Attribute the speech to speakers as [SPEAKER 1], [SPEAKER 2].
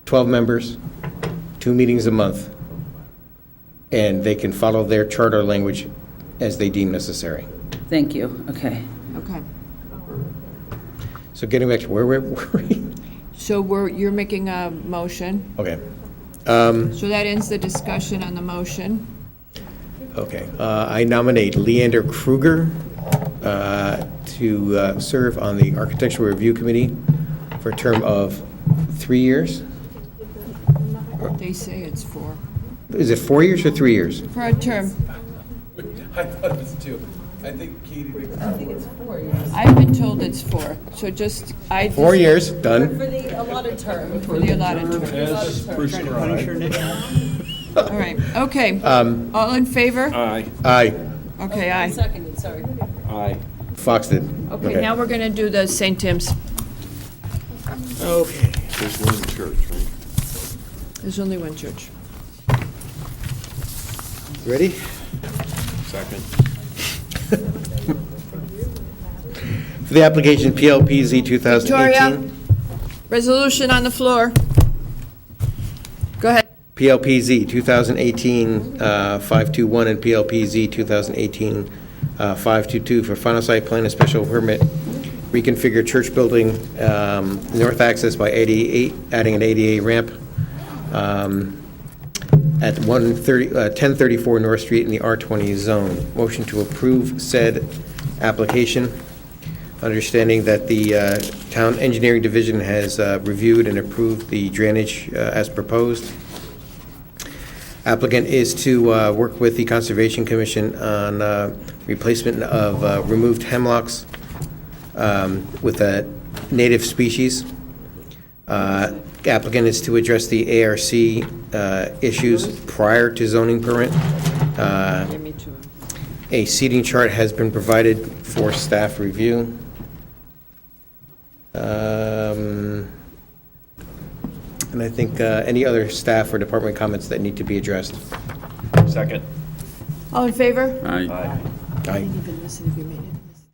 [SPEAKER 1] 12 members, two meetings a month, and they can follow their charter language as they deem necessary.
[SPEAKER 2] Thank you, okay.
[SPEAKER 3] Okay.
[SPEAKER 1] So getting back to where we're, were we?
[SPEAKER 3] So we're, you're making a motion.
[SPEAKER 1] okay. Um,
[SPEAKER 3] So that ends the discussion on the motion.
[SPEAKER 1] Okay, Uh, I nominate Leander Kruger uh, to uh, serve on the Architectural Review Committee for a term of three years.
[SPEAKER 3] They say it's for,
[SPEAKER 1] Is it four years or three years?
[SPEAKER 3] for a term.
[SPEAKER 4] I thought it was two. I think Katie.
[SPEAKER 3] I've been told it's four, so just, I. just-
[SPEAKER 1] Four years, done.
[SPEAKER 5] For the allotted term.
[SPEAKER 3] For the allotted term.
[SPEAKER 4] As prescribed.
[SPEAKER 3] All right, okay. All in favor?
[SPEAKER 4] Aye.
[SPEAKER 1] Aye,
[SPEAKER 3] Okay, aye.
[SPEAKER 5] Seconded, sorry.
[SPEAKER 4] Aye.
[SPEAKER 1] Fox did.
[SPEAKER 3] Okay, now we're gonna do the St. Tim's.
[SPEAKER 4] Okay. There's one church, right?
[SPEAKER 3] There's only one church.
[SPEAKER 1] Ready?
[SPEAKER 4] Second.
[SPEAKER 1] For the application PLPZ 2018.
[SPEAKER 3] Victoria? Resolution on the floor. Go ahead.
[SPEAKER 1] PLPZ uh, 2018-521 and PLPZ uh, 2018-522 for final site plan and special permit, reconfigure church building, um, north access by 88, adding an ADA ramp um, at 130 uh, 1034 North Street in the R20 zone. Motion to approve said application, understanding that the uh, Town Engineering Division has uh, reviewed and approved the drainage uh, as proposed applicant is to uh, work with the Conservation Commission on uh, replacement of uh, removed hemlocks um, with a native species. Uh, Applicant is to address the ARC uh, issues prior to zoning permit. Uh, A seating chart has been provided for staff review. Um, and I think uh, any other staff or department comments that need to be addressed.
[SPEAKER 4] Second.
[SPEAKER 3] All in favor?
[SPEAKER 6] Aye.
[SPEAKER 1] Aye.
[SPEAKER 3] Even listen if you mean